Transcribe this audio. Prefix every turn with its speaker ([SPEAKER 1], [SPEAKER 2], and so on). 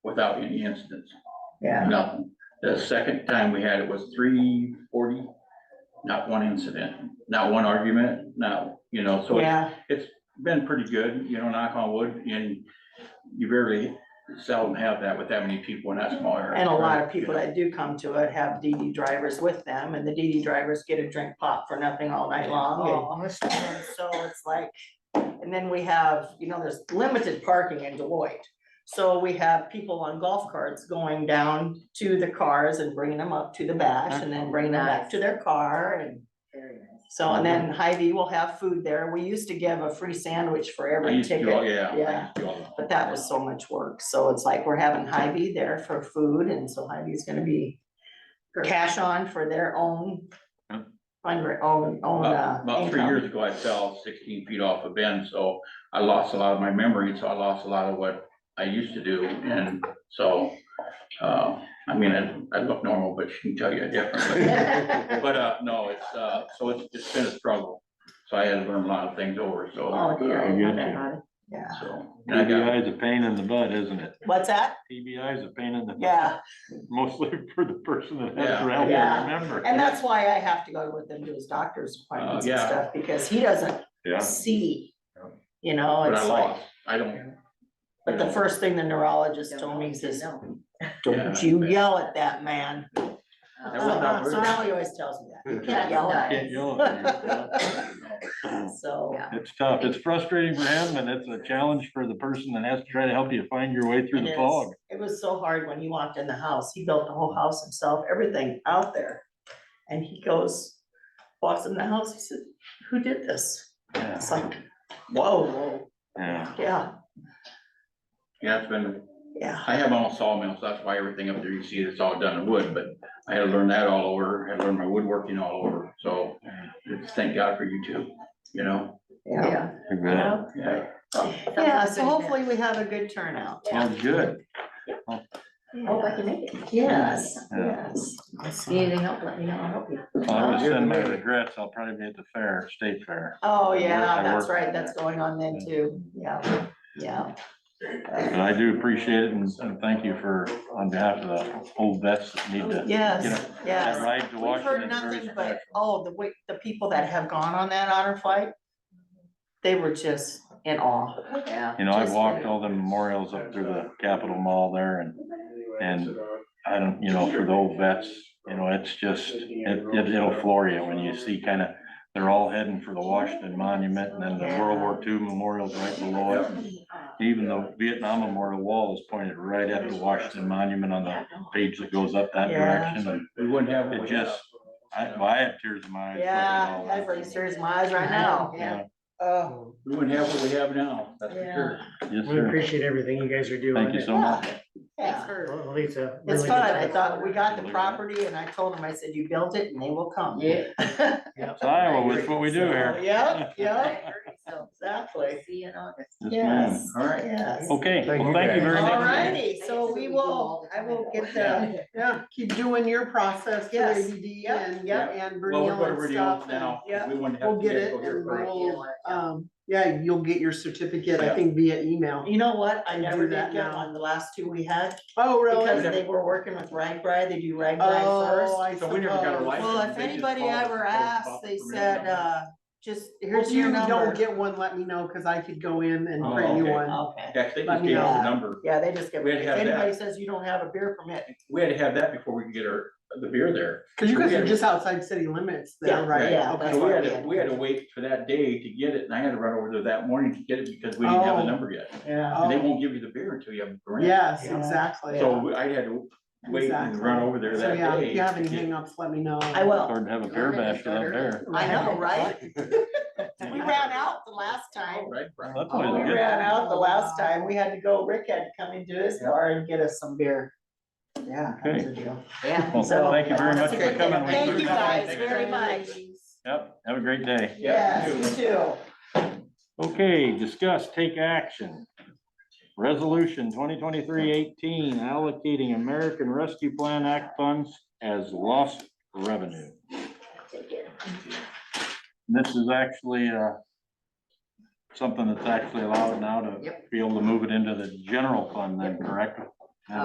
[SPEAKER 1] without any incidents,
[SPEAKER 2] yeah,
[SPEAKER 1] nothing. The second time we had it was three forty, not one incident, not one argument, not, you know, so it's
[SPEAKER 2] yeah,
[SPEAKER 1] been pretty good, you know, knock on wood, and you rarely seldom have that with that many people in that small area.
[SPEAKER 2] and a lot of people that do come to it have DD drivers with them, and the DD drivers get a drink pop for nothing all night long.
[SPEAKER 3] Oh,
[SPEAKER 2] and- and So it's like, and then we have, you know, there's limited parking in Deloitte. So we have people on golf carts going down to the cars and bringing them up to the bash, and then bringing them back to their car, and
[SPEAKER 3] very nice.
[SPEAKER 2] so, and then Hy-Vee will have food there. We used to give a free sandwich for
[SPEAKER 1] I
[SPEAKER 2] every
[SPEAKER 1] used to
[SPEAKER 2] ticket.
[SPEAKER 1] do all- Yeah. I
[SPEAKER 2] Yeah.
[SPEAKER 1] used to do all that.
[SPEAKER 2] But that was so much work, so it's like we're having Hy-Vee there for food, and so Hy-Vee's gonna be cash on for their own
[SPEAKER 4] Huh.
[SPEAKER 2] fund, own, own, uh.
[SPEAKER 1] About about three
[SPEAKER 2] income.
[SPEAKER 1] years ago, I fell sixteen feet off a bend, so I lost a lot of my memory, so I lost a lot of what I used to do, and so. Uh, I mean, I, I look normal, but she can tell you differently, but, uh, no, it's, uh, so it's, it's been a struggle. So I had to learn a lot of things over, so.
[SPEAKER 2] Oh, dear.
[SPEAKER 1] uh,
[SPEAKER 4] I get you.
[SPEAKER 2] Okay. Yeah,
[SPEAKER 1] So, and I got,
[SPEAKER 4] TBI is a pain in the butt, isn't it?
[SPEAKER 2] what's that?
[SPEAKER 4] TBI is a pain in the. butt,
[SPEAKER 2] Yeah,
[SPEAKER 4] Mostly for the person that has
[SPEAKER 1] Yeah.
[SPEAKER 4] to help
[SPEAKER 2] Yeah.
[SPEAKER 4] them remember.
[SPEAKER 2] and that's why I have to go with them to his doctor's appointments and
[SPEAKER 1] Uh, yeah.
[SPEAKER 2] stuff, because he doesn't
[SPEAKER 4] Yeah,
[SPEAKER 2] see.
[SPEAKER 4] Yeah.
[SPEAKER 2] You know,
[SPEAKER 1] but I
[SPEAKER 2] it's like,
[SPEAKER 1] lost, I don't.
[SPEAKER 2] but the first thing the neurologist
[SPEAKER 3] Don't
[SPEAKER 2] told me
[SPEAKER 3] know,
[SPEAKER 2] is,
[SPEAKER 3] no.
[SPEAKER 1] Yeah.
[SPEAKER 2] don't you yell at that man.
[SPEAKER 3] Oh,
[SPEAKER 1] That was not
[SPEAKER 2] So
[SPEAKER 1] rude.
[SPEAKER 2] Riley always tells me that, you can't
[SPEAKER 3] Yeah.
[SPEAKER 2] yell at
[SPEAKER 4] Can't yell at
[SPEAKER 2] him,
[SPEAKER 4] you.
[SPEAKER 2] so.
[SPEAKER 3] Yeah.
[SPEAKER 4] It's tough. It's frustrating for him and it's a challenge for the person that has to try to help you find your way through
[SPEAKER 2] It
[SPEAKER 4] the
[SPEAKER 2] is.
[SPEAKER 4] fog.
[SPEAKER 2] It was so hard when he walked in the house. He built the whole house himself, everything out there. And he goes, walks in the house, he said, who did this?
[SPEAKER 4] Yeah.
[SPEAKER 2] It's like, whoa,
[SPEAKER 4] Yeah,
[SPEAKER 2] yeah,
[SPEAKER 1] Yeah, it's been,
[SPEAKER 2] yeah,
[SPEAKER 1] I have all sawmills, that's why everything up there you see, it's all done in wood, but I had to learn that all over, I had to learn my woodworking all over, so. Thank God for you two, you know,
[SPEAKER 2] yeah.
[SPEAKER 4] I bet.
[SPEAKER 1] yeah.
[SPEAKER 2] Yeah, so hopefully we have a good turnout.
[SPEAKER 4] Well, good.
[SPEAKER 3] Hope I can make it.
[SPEAKER 2] Yes,
[SPEAKER 4] Yeah.
[SPEAKER 2] yes.
[SPEAKER 3] If you Need any help, let me know, I'll help you.
[SPEAKER 4] I would
[SPEAKER 2] Uh,
[SPEAKER 4] send my regrets. I'll probably be at the fair, state fair.
[SPEAKER 2] Oh,
[SPEAKER 4] I work-
[SPEAKER 2] yeah,
[SPEAKER 4] I
[SPEAKER 2] that's
[SPEAKER 4] work-
[SPEAKER 2] right. That's going on then too. Yeah, yeah.
[SPEAKER 4] But I do appreciate it and and thank you for, on behalf of the old vets that need to. you know,
[SPEAKER 2] Yes, Oh, yes.
[SPEAKER 4] That ride
[SPEAKER 2] We've
[SPEAKER 4] to
[SPEAKER 2] heard
[SPEAKER 4] Washington is very
[SPEAKER 2] nothing but,
[SPEAKER 4] special.
[SPEAKER 2] oh, the way, the people that have gone on that honor flight, they were just in awe.
[SPEAKER 3] Yeah.
[SPEAKER 4] You know, I've
[SPEAKER 2] Just-
[SPEAKER 4] walked all the memorials up through the Capitol Mall there and
[SPEAKER 5] And,
[SPEAKER 4] I don't, you know, for the old vets, you know, it's just, it, it- it'll floor you when you see kind of, they're all heading for the Washington Monument and then the World War II Memorial's right below it. Even the Vietnam Memorial Wall is pointed right at the Washington Monument on the page that goes up that
[SPEAKER 2] Yeah.
[SPEAKER 4] direction. And
[SPEAKER 1] We wouldn't have.
[SPEAKER 4] It just, I, well, I have tears in my eyes. looking at
[SPEAKER 2] Yeah,
[SPEAKER 4] all
[SPEAKER 2] that's
[SPEAKER 4] that.
[SPEAKER 2] like tears in my eyes right now.
[SPEAKER 4] Yeah,
[SPEAKER 2] Oh,
[SPEAKER 1] We wouldn't have what we have now, that's for
[SPEAKER 2] Yeah.
[SPEAKER 1] sure.
[SPEAKER 4] yes,
[SPEAKER 6] We
[SPEAKER 4] sir.
[SPEAKER 6] appreciate everything you guys are doing.
[SPEAKER 4] Thank you so much.
[SPEAKER 2] yeah.
[SPEAKER 6] Well, at least a
[SPEAKER 2] It's
[SPEAKER 6] really good
[SPEAKER 2] fun. I
[SPEAKER 6] job.
[SPEAKER 2] thought, we got the property and I told them, I said, you built it and they will come.
[SPEAKER 3] Yeah.
[SPEAKER 4] It's Iowa, that's what we do
[SPEAKER 2] So,
[SPEAKER 4] here.
[SPEAKER 2] Yep, yep,
[SPEAKER 3] So,
[SPEAKER 2] exactly.
[SPEAKER 3] see you in August.
[SPEAKER 4] Yes, ma'am.
[SPEAKER 2] Yes,
[SPEAKER 1] All right. Oh.
[SPEAKER 2] yes.
[SPEAKER 4] Okay,
[SPEAKER 6] Thank
[SPEAKER 4] well,
[SPEAKER 6] you
[SPEAKER 4] thank you
[SPEAKER 6] guys.
[SPEAKER 4] very much.
[SPEAKER 2] Alrighty, so we will, I will get the,
[SPEAKER 7] Yeah, keep doing your process for
[SPEAKER 2] Yes.
[SPEAKER 7] ADD
[SPEAKER 2] Yep,
[SPEAKER 7] and,
[SPEAKER 1] yep.
[SPEAKER 7] and
[SPEAKER 1] Well, we're
[SPEAKER 7] Brunel
[SPEAKER 1] going to
[SPEAKER 7] and
[SPEAKER 1] radio
[SPEAKER 7] stuff. and,
[SPEAKER 1] now, 'cause
[SPEAKER 2] yeah.
[SPEAKER 1] we wouldn't have.
[SPEAKER 7] We'll
[SPEAKER 1] to
[SPEAKER 7] get it
[SPEAKER 1] go here
[SPEAKER 7] and
[SPEAKER 1] first.
[SPEAKER 7] we'll, um, yeah, you'll get your certificate,
[SPEAKER 1] Yeah.
[SPEAKER 7] I think via email.
[SPEAKER 2] you know what? I
[SPEAKER 7] And do
[SPEAKER 2] never did
[SPEAKER 7] that
[SPEAKER 2] get
[SPEAKER 7] now.
[SPEAKER 2] one, the last two we had.
[SPEAKER 7] Oh,
[SPEAKER 2] Because
[SPEAKER 7] really?
[SPEAKER 2] they were working with Ragbri, they do Ragbri
[SPEAKER 7] Oh,
[SPEAKER 2] first.
[SPEAKER 7] I
[SPEAKER 1] So we never got a
[SPEAKER 7] suppose.
[SPEAKER 1] license.
[SPEAKER 2] Well, if
[SPEAKER 1] they just
[SPEAKER 2] anybody
[SPEAKER 1] called us
[SPEAKER 2] ever
[SPEAKER 1] and told us about
[SPEAKER 2] asked,
[SPEAKER 1] the
[SPEAKER 2] they
[SPEAKER 1] permit
[SPEAKER 2] said,
[SPEAKER 1] number.
[SPEAKER 2] uh, just,
[SPEAKER 7] If
[SPEAKER 2] here's your
[SPEAKER 7] you don't
[SPEAKER 2] number.
[SPEAKER 7] get one, let me know, cause I could go in and
[SPEAKER 1] Oh,
[SPEAKER 7] print you
[SPEAKER 1] okay.
[SPEAKER 7] one.
[SPEAKER 2] Okay,
[SPEAKER 1] Yeah, 'cause they
[SPEAKER 7] let
[SPEAKER 1] just
[SPEAKER 7] me
[SPEAKER 1] gave us the
[SPEAKER 2] know.
[SPEAKER 1] number.
[SPEAKER 2] yeah, they just get,
[SPEAKER 1] We had to
[SPEAKER 2] if
[SPEAKER 1] have that.
[SPEAKER 2] anybody says you don't have a beer permit,
[SPEAKER 1] We had to have that before we could get our, the beer there.
[SPEAKER 7] Cause you
[SPEAKER 1] We
[SPEAKER 7] guys
[SPEAKER 1] had-
[SPEAKER 7] are just outside city limits there,
[SPEAKER 2] Yeah,
[SPEAKER 7] right?
[SPEAKER 2] yeah,
[SPEAKER 7] Okay.
[SPEAKER 1] So
[SPEAKER 2] that's
[SPEAKER 1] we
[SPEAKER 2] why
[SPEAKER 1] had
[SPEAKER 2] we
[SPEAKER 1] to,
[SPEAKER 2] had-
[SPEAKER 1] we had to wait for that day to get it, and I had to run over there that morning to get it because we didn't have the
[SPEAKER 7] Oh.
[SPEAKER 1] number yet.
[SPEAKER 2] yeah.
[SPEAKER 1] And they
[SPEAKER 7] Oh,
[SPEAKER 1] won't give you the beer until you have the grant.
[SPEAKER 7] Yes,
[SPEAKER 2] Yeah.
[SPEAKER 7] exactly.
[SPEAKER 1] So we- I had to wait and
[SPEAKER 7] Exactly.
[SPEAKER 1] run over there
[SPEAKER 7] So
[SPEAKER 1] that
[SPEAKER 7] yeah,
[SPEAKER 1] day.
[SPEAKER 7] if you have any
[SPEAKER 1] to get-
[SPEAKER 7] hangups, let me know.
[SPEAKER 2] I will,
[SPEAKER 4] Hard to have a beer bash without beer.
[SPEAKER 2] uh, I know, right? We
[SPEAKER 4] Yeah.
[SPEAKER 2] ran out the last time. Oh.
[SPEAKER 1] All right, Brian.
[SPEAKER 4] That's
[SPEAKER 2] We
[SPEAKER 4] always a good.
[SPEAKER 2] ran out the last time, we had to go, Rick had to come into his bar and get us some beer. Yeah. that was a deal.
[SPEAKER 3] Yeah.
[SPEAKER 4] Well,
[SPEAKER 2] So-
[SPEAKER 4] thank you very much for coming. We
[SPEAKER 2] Thank you
[SPEAKER 4] appreciate it.
[SPEAKER 2] guys very much.
[SPEAKER 4] Yep, have a great day.
[SPEAKER 1] Yeah,
[SPEAKER 2] Yes,
[SPEAKER 1] you
[SPEAKER 2] you too.
[SPEAKER 4] Okay, discuss, take action. Resolution 2023-18 allocating American Rescue Plan Act funds as lost revenue. This is actually, uh, something that's actually allowed now to be able to move it into the general fund then, correct?